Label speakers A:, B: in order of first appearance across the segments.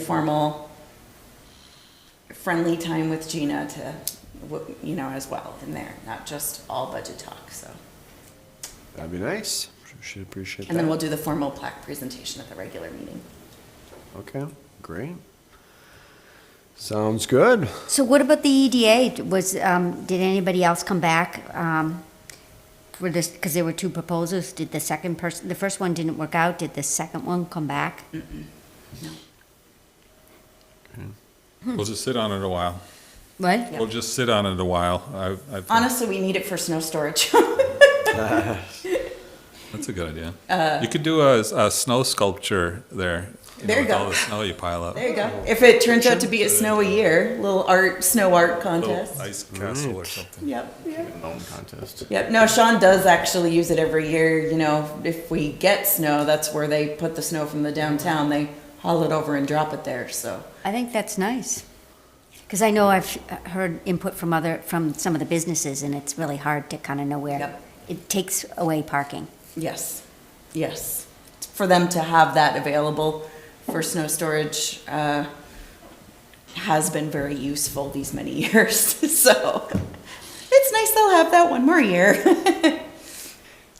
A: informal, friendly time with Gina to, w- you know, as well in there, not just all budget talk, so.
B: That'd be nice. Should appreciate
A: And then we'll
B: that.
A: do the formal plaque presentation at the regular meeting.
B: Okay, great. Sounds good.
C: So what about the E EDA? Was, um, did anybody else come back, um, for this, because there were two proposals? Did the second person, the first one didn't work out, did the second one come back?
D: We'll just sit on it a while.
C: What?
D: We'll just sit on it a while. I, I,
A: Honestly, we need it for snow storage.
D: that's a good idea. You could do a, a snow sculpture there. know,
A: Uh, There you
D: with
A: go.
D: All the snow you pile up.
A: There you go. If it turns out to be a snow a year, little art, snow art
D: Little
A: contest.
D: ice castle or
B: Right.
D: something.
A: Yep.
B: Contest.
A: Yep. No, Sean does actually use it every year. You know, if we get snow, that's where they put the snow from the downtown. They haul it over and drop it there. So
C: I think that's nice. Because I know I've heard input from other, from some of the businesses, and it's really hard to kind of know where.
A: Yep.
C: It takes away parking.
A: yes, yes, for them to have that available for snow storage uh, has been very useful these many years. so it's nice they'll have that one more year.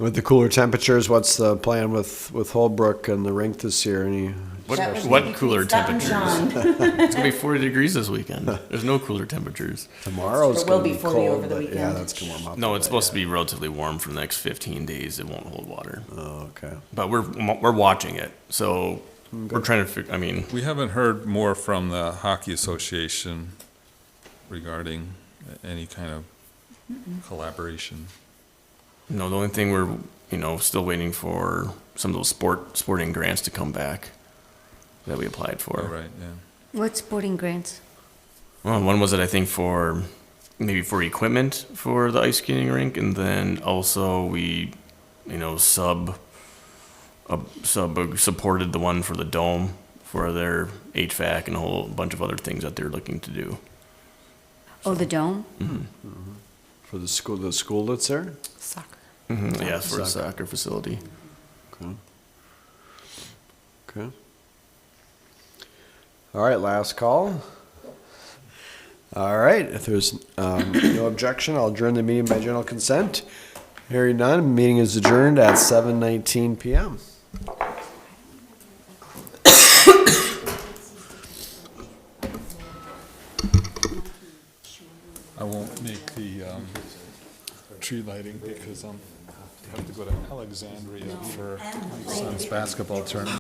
B: With the cooler temperatures, what's the plan with, with Holbrook and the rink this year? Any,
A: That was
E: What, what
A: me.
E: cooler
A: Stop and
E: temperatures?
A: Sean.
E: It's gonna be 40 degrees this weekend. There's no cooler temperatures.
B: tomorrow's
A: There will
B: gonna
A: be
B: be
A: 40
B: cold,
A: over the
B: but yeah,
A: weekend.
B: that's gonna warm up.
E: No,
B: a
E: it's
B: bit,
E: supposed to be relatively warm for the next 15 days. It won't hold water.
B: yeah. Oh, okay.
E: But we're we're watching it, so we're trying to. Fig- I mean,
D: We haven't heard more from the Hockey Association regarding any kind of collaboration.
E: you know, the only thing we're you know still waiting for some of those sport sporting grants to come back that we applied for.
D: All right, yeah.
C: What sporting grants?
E: Well, one was it I think for maybe for equipment for the ice skating rink, and then also we, you know, sub uh, sub supported the one for the dome for their HVAC and a whole bunch of other things that they're looking to do.
C: Oh, the dome?
B: For the school, the school that's there?
A: Soccer.
E: Mm-hmm. Yeah, for a soccer facility.
B: Okay. Okay. All right, last call. All right, if there's um, no objection, I'll adjourn the meeting by general consent. Hearing none, meeting is adjourned at 7:19 PM.
D: I won't make the, um, tree lighting because I'm, I have to go to Alexandria for my son's basketball tournament.